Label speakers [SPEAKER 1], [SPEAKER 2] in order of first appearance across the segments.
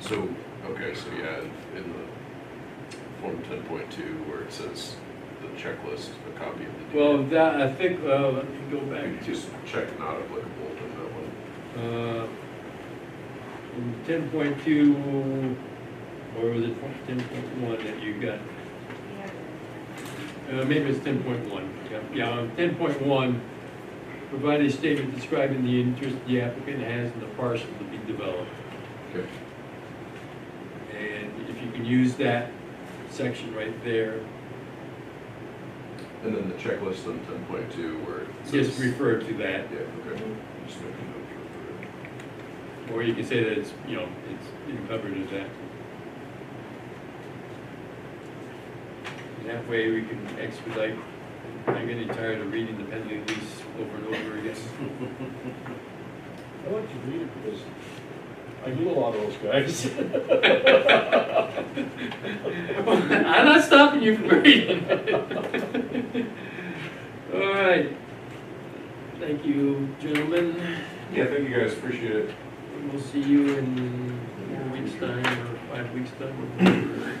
[SPEAKER 1] So, okay, so yeah, in the form ten point two where it says the checklist, a copy of the.
[SPEAKER 2] Well,
[SPEAKER 1] deed,
[SPEAKER 2] that, I think, uh, let me go
[SPEAKER 1] you
[SPEAKER 2] back
[SPEAKER 1] could Just check not applicable to that one.
[SPEAKER 2] Uh, ten point two, or was it ten point one that you got? Uh, maybe it's ten point one, yeah, yeah, ten point one, provide a statement describing the interest the applicant has in the parcel to be developed.
[SPEAKER 1] Okay.
[SPEAKER 2] And if you can use that section right there,
[SPEAKER 1] And then the checklist on ten point two where it says.
[SPEAKER 2] just refer to that,
[SPEAKER 1] Yeah, okay. Just make a note for- for-
[SPEAKER 2] or you can say that it's, you know, it's encumbered as that. And That way we can expedite, I'm getting tired of reading the penalty lease over and over again.
[SPEAKER 3] I like to read it because I knew a lot of those guys.
[SPEAKER 2] I'm not stopping you from reading. All right. Thank you, gentlemen.
[SPEAKER 1] Yeah, thank you guys, appreciate it.
[SPEAKER 2] We'll see you in four weeks' time or five weeks' time. or whatever.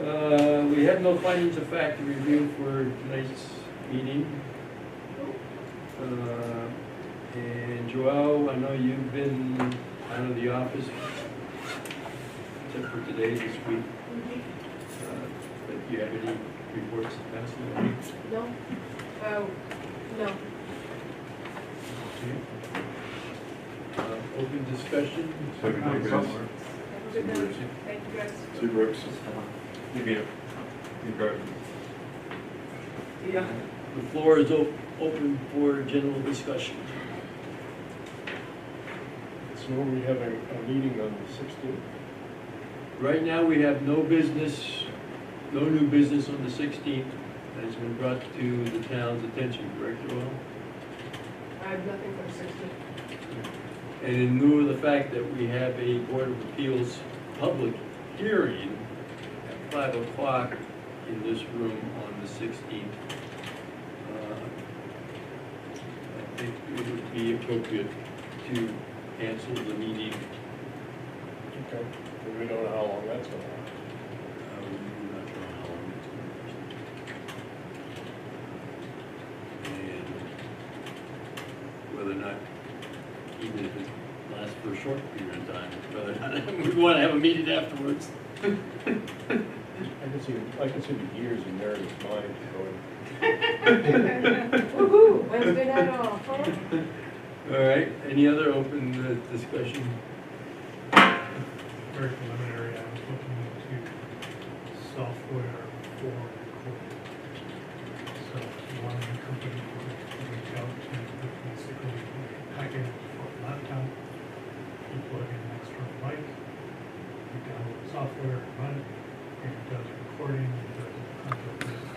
[SPEAKER 2] Uh, we have no findings of fact to review for tonight's meeting. Uh, And Joel, I know you've been out of the office, except for today, this week. Uh, But do you have any reports to pass along?
[SPEAKER 4] No? Oh, no.
[SPEAKER 2] Uh, Open discussion?
[SPEAKER 1] Have a good day, guys.
[SPEAKER 4] Have a good night. Thank you guys.
[SPEAKER 1] See you, Brooks.
[SPEAKER 4] Yeah.
[SPEAKER 2] The floor is op- open for general discussion.
[SPEAKER 3] So we have a, a meeting on the sixteenth.
[SPEAKER 2] Right now, we have no business, no new business on the 16th that has been brought to the town's attention, correct, Joel?
[SPEAKER 4] I have nothing for sixteen.
[SPEAKER 2] And in lieu of the fact that we have a Board of Appeals public hearing at 5 o'clock in this room on the 16th, uh, I think it would be appropriate to cancel the meeting
[SPEAKER 3] Okay. And we don't know how long that's gonna last.
[SPEAKER 2] Uh, we're not sure how long it's gonna last. And whether or not, even if it lasts for a short period of time, whether or not we wanna have a meeting afterwards.
[SPEAKER 3] I can see, I can see the years in Meredith's mind going.
[SPEAKER 4] Woohoo, Wednesday night off, huh?
[SPEAKER 2] All right, any other open uh, discussion?
[SPEAKER 5] very preliminary, I was looking into software for recording. So one company would reach out to the basically package for a laptop, you plug in an external mic, you download the software, and run it, and it does recording, it does all kinds of things.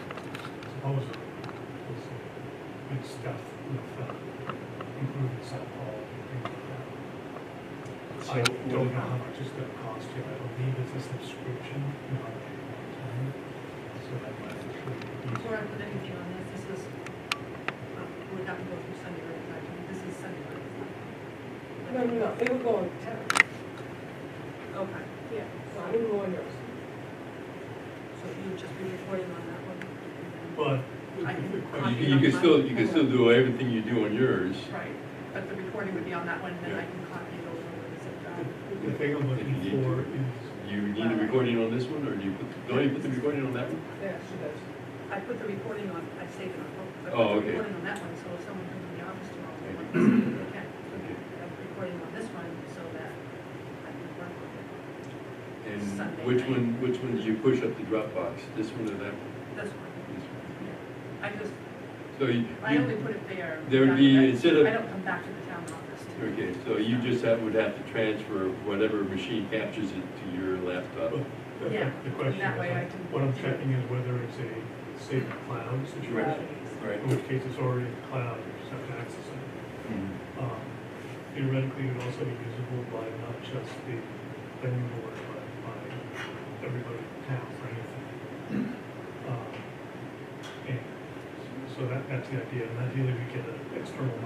[SPEAKER 5] Supposedly, it's good stuff with, uh, improving sound quality and things like that. I don't know how much it's gonna cost you, I believe it's a subscription, not a one-time, so that might actually be
[SPEAKER 6] Before I
[SPEAKER 5] easier.
[SPEAKER 6] put anything on this, this is, uh, would not go through Sunday River Factory, this is Sunday River.
[SPEAKER 4] No, no, no, they were going to town.
[SPEAKER 6] Okay,
[SPEAKER 4] Yeah, so I didn't go in yours.
[SPEAKER 6] so you would just be reporting on that one?
[SPEAKER 5] But,
[SPEAKER 6] I can
[SPEAKER 2] You
[SPEAKER 6] copy
[SPEAKER 2] can-
[SPEAKER 6] it
[SPEAKER 2] you
[SPEAKER 6] on
[SPEAKER 2] can
[SPEAKER 6] my-
[SPEAKER 2] still, you can still do everything you do on yours.
[SPEAKER 6] Right, but the recording would be on that one, and then I can copy it over with the zip drive.
[SPEAKER 5] the thing I'm looking
[SPEAKER 2] If you need
[SPEAKER 5] for
[SPEAKER 2] to.
[SPEAKER 5] is,
[SPEAKER 2] You need a recording on this one, or do you put, don't you put the recording on that one?
[SPEAKER 4] Yeah, she does.
[SPEAKER 6] I put the recording on, I saved it on both. I
[SPEAKER 2] Oh,
[SPEAKER 6] put the
[SPEAKER 2] okay.
[SPEAKER 6] Recording on that one, so if someone comes in the office tomorrow, they want to see it, they can.
[SPEAKER 2] Okay.
[SPEAKER 6] I have the recording on this one, so that I can work with it.
[SPEAKER 2] And
[SPEAKER 6] Sunday
[SPEAKER 2] which
[SPEAKER 6] night.
[SPEAKER 2] one, which one did you push up the Dropbox? This one or that one?
[SPEAKER 6] This one,
[SPEAKER 2] This one.
[SPEAKER 6] I just,
[SPEAKER 2] So you,
[SPEAKER 6] I only put it there.
[SPEAKER 2] There would be-
[SPEAKER 6] I-
[SPEAKER 2] instead of-
[SPEAKER 6] I don't come back to the town office.
[SPEAKER 2] Okay, so you just have, would have to transfer whatever machine captures it to your laptop.
[SPEAKER 5] but, oh, the-
[SPEAKER 6] Yeah,
[SPEAKER 5] the question
[SPEAKER 6] that way I
[SPEAKER 5] is,
[SPEAKER 6] can-
[SPEAKER 5] what I'm checking is whether it's a safe cloud situation,
[SPEAKER 2] Right.
[SPEAKER 5] in which case it's already in the cloud, you just have to access it. Um, Theoretically, it would also be usable by not just the planning board, but by everybody in town for anything. Um, And so that, that's the idea, and ideally we get an external mic